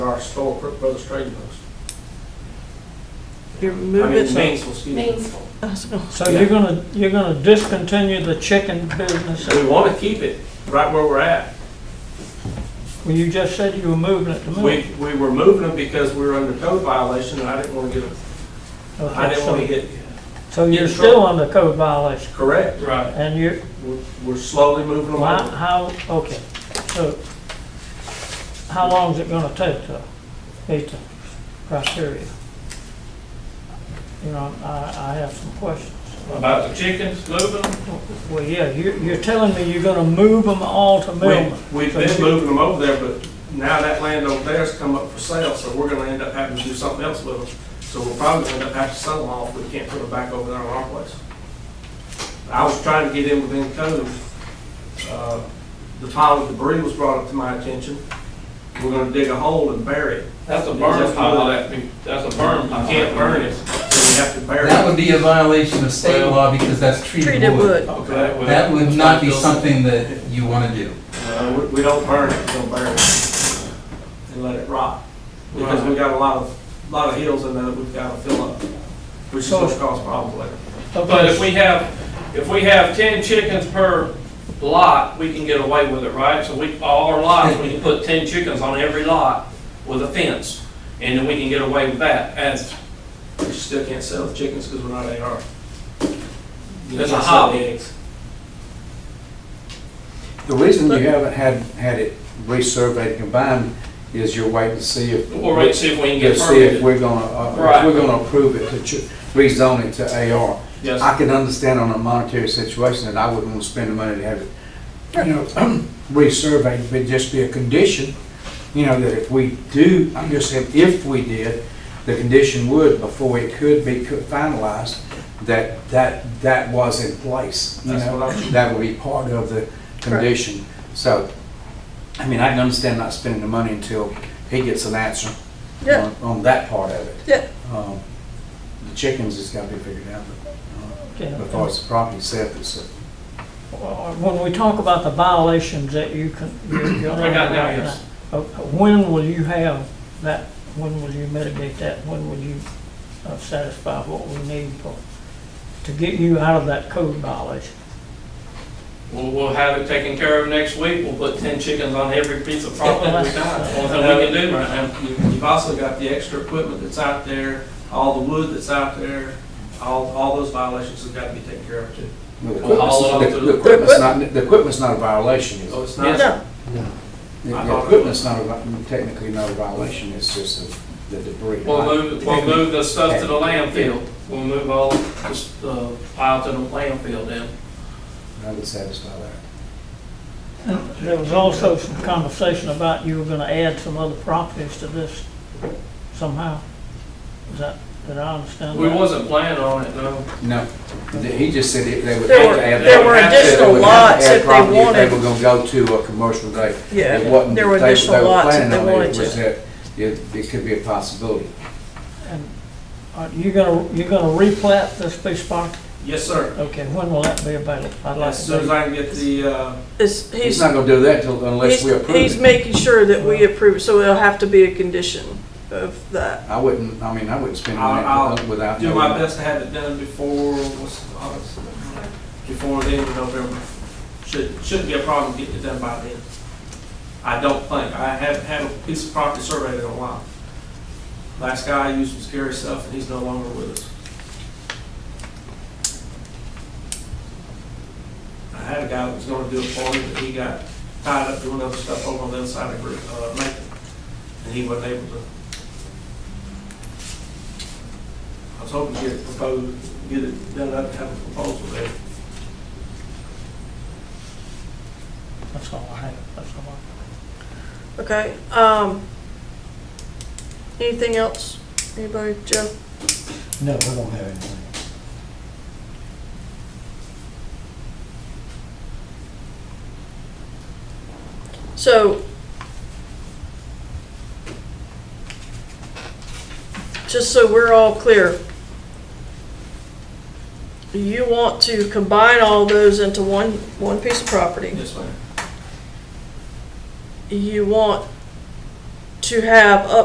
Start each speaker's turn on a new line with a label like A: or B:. A: across the store, Crook Brothers Trading Post.
B: You're
A: I mean,
B: moving,
A: Mainsville, excuse me.
C: Mainsville.
D: So you're gonna, you're gonna discontinue the chicken business?
A: So we want to keep it right where we're at.
D: Well, you just said you were moving it to move.
A: We, we were moving them because we were under code violation, and I didn't want to get, I
D: Okay,
A: didn't
D: so-
A: want to get,
D: So
A: get
D: you're
A: in trouble.
D: still under code violation,
A: correct?
E: Right.
D: and you're,
A: We're- We're slowly moving them
D: Why,
A: on.
D: how, okay, so, how long is it gonna take to meet the criteria? You know, I, I have some questions.
E: About the chickens moving them?
D: Well, yeah, you're, you're telling me you're gonna move them all to
A: We-
D: Millman?
A: We've been moving them over there, but now that land over there's come up for sale, so we're gonna end up having to do something else with them. So we'll probably end up having to sell them off, we can't put them back over there on our place. I was trying to get in within code, uh, the pile of debris was brought up to my attention. We're gonna dig a hole and bury it,
E: That's a burn pile, that, be- that's a burn
A: you
E: pile.
A: can't burn it, so we have to bury
F: That
A: it.
F: would be a violation of state law because that's treated
B: treated
F: wood.
B: wood.
E: Okay, well.
F: That would not be something that you want to do.
A: Uh, we, we don't burn it, we don't bury it, and let it rot, because we got a lot of, lot of hills in there that we've gotta fill up, which is gonna cause problems later.
E: But if
D: Okay,
E: we have, if we have ten chickens per lot, we can get away with it, right? So we, all our lots, we can put ten chickens on every lot with a fence, and then we can get away with that. As,
A: We still can't sell the chickens because we're not AR.
E: It's a hobby.
G: The reason you haven't had, had it resurveyed combined is you're waiting to see if.
E: we'll wait and see if we can
G: To
E: get
G: see if
E: permitted.
G: we're gonna, uh,
E: Right.
G: if we're gonna approve it to ch- rezone it to AR.
A: Yes,
G: I can understand on a monetary situation that I wouldn't want to spend the money to have it, you know, resurveyed, but just be a condition, you know, that if we do, I'm just saying, if we did, the condition would, before it could be co- finalized, that, that, that was in place, you
A: That's
G: know?
A: what I-
G: That would be part of the condition. So, I mean, I can understand not spending the money until he gets an answer
B: Yeah.
G: on, on that part of it.
B: Yeah.
G: Um, The chickens has got to be figured out, but, uh,
D: okay.
G: as far as the property itself is,
D: Well, Uh, When we talk about the violations that you can, you're. you're
E: I got now,
D: under right
E: yes.
D: now, uh, When will you have that, when will you mitigate that, when will you uh, satisfy what we need for, to get you out of that code violation?
E: We'll, we'll have it taken care of next week. We'll put ten chickens on every piece of property we got. That's the only thing we can do right now.
A: You- you've also got the extra equipment that's out there, all the wood that's out there, all, all those violations have got to be taken care of too.
G: the
E: all of
G: equipment's,
E: it. Oh,
G: the- the equipment's not, the equipment's not a violation, is
A: So
G: it?
A: it's
E: Yes.
A: not,
B: No,
G: The-
A: I
G: The
A: thought-
G: equipment's not a, vi- technically not a violation, it's just the the debris.
E: We'll move, we'll move the stuff to the landfill. We'll move all this, uh, pile to the landfill then.
G: I would satisfy that.
D: There was also some conversation about you were gonna add some other properties to this somehow. Is that, did I understand that?
E: We wasn't planning on it, no.
G: No, Th- he just said it- they would.
B: There
G: have to
B: were-
G: add-
B: there were
G: they would have to-
B: additional
G: they would have
B: lots
G: to add
B: if they
G: property If
B: wanted.
G: they were gonna go to a commercial day.
B: Yeah,
G: It wasn't
B: there
G: that
B: were
G: they- they
B: additional
G: were
B: lots if
G: planning
B: they
G: on it, it
B: wanted to.
G: was that It, it could be a possibility.
D: And Are you gonna, you're gonna replat this piece of property?
A: yes, sir.
D: Okay, when will that be available? I'd like
A: As
D: to
A: soon
D: be-
A: as I can get the, uh,
B: it's,
G: He's
B: he's,
G: not gonna do that till, unless
B: he's,
G: we approve
B: he's
G: it.
B: making sure that we approve, so it'll have to be a condition of that.
G: I wouldn't, I mean, I wouldn't spend
A: I'll- I'll
G: money without.
A: do my
G: knowing.
A: best to have it done before, what's, August? before the end of November. Should, shouldn't be a problem getting it done by then. I don't think, I haven't had a piece of property surveyed in a while. Last guy I used was Gary Self, and he's no longer with us. I had a guy that was gonna do it for me, but he got tied up doing other stuff over on the other side of, Gr- uh, Macon, and he wasn't able to. I was hoping to get it proposed, get it done up, have a proposal there.
D: That's all I have, that's all I have.
B: Okay, um, anything else? Anybody, Joe?
H: No, I don't have anything.
B: So, just so we're all clear, you want to combine all those into one, one piece of property.
A: Yes, ma'am.
B: You want to have up